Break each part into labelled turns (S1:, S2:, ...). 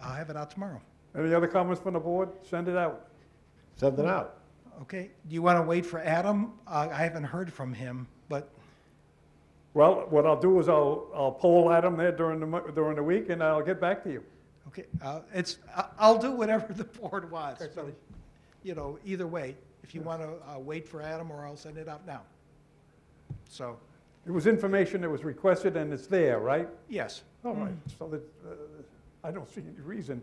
S1: have it out tomorrow.
S2: Any other comments from the board? Send it out.
S3: Send it out.
S1: Okay, do you want to wait for Adam? I I haven't heard from him, but,
S2: Well, what I'll do is I'll, I'll poll Adam there during the, mo- during the week, and I'll get back to you.
S1: okay, uh, it's, I- I'll do whatever the board wants. but, You know, either way, if you want to wait for Adam, or I'll send it out now. So,
S2: It was information that was requested, and it's there, right?
S1: yes,
S2: All right, so that, uh, I don't see any reason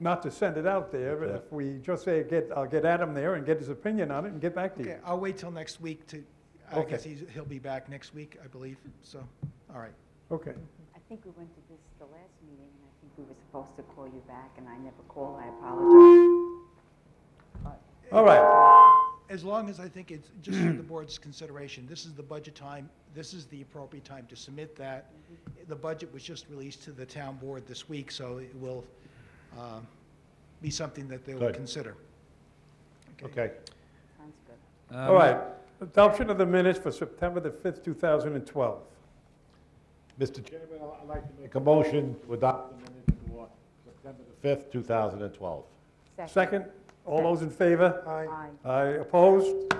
S2: not to send it out there.
S3: Yeah.
S2: If we just say, get, I'll get Adam there and get his opinion on it and get back to you.
S1: okay, I'll wait till next week to, I
S2: Okay.
S1: guess he's, he'll be back next week, I believe, so, all right.
S2: Okay.
S4: I think we went to this the last meeting, and I think we were supposed to call you back, and I never called, I apologize.
S2: All right,
S1: As long as I think it's, just for the board's consideration, this is the budget time, this is the appropriate time to submit that. The budget was just released to the town board this week, so it will um, be something that they will
S3: Good.
S1: consider.
S3: Okay.
S4: Sounds good.
S2: all right. Adoption of the minutes for September the 5th, 2012.
S3: Mr. Chairman, I'd like to make a motion to adopt the minutes for September the 5th, 2012.
S2: Second, all those in favor?
S4: Aye.
S2: I opposed.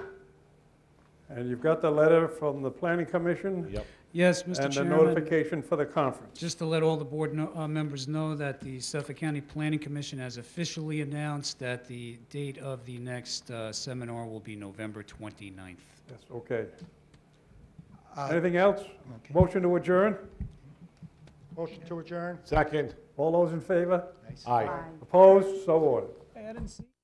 S2: And you've got the letter from the planning commission
S3: Yep.
S5: Yes, Mr.
S2: and the
S5: Chairman,
S2: notification for the conference.
S5: just to let all the board know- uh, members know that the Suffolk County Planning Commission has officially announced that the date of the next uh, seminar will be November 29th.
S2: Yes, okay.
S1: Uh,
S2: Anything else?
S1: okay.
S2: Motion to adjourn?
S1: Motion to adjourn.
S3: Second,
S2: All those in favor?
S3: aye.
S4: Aye.
S2: Opposed? So ordered.
S5: I didn't see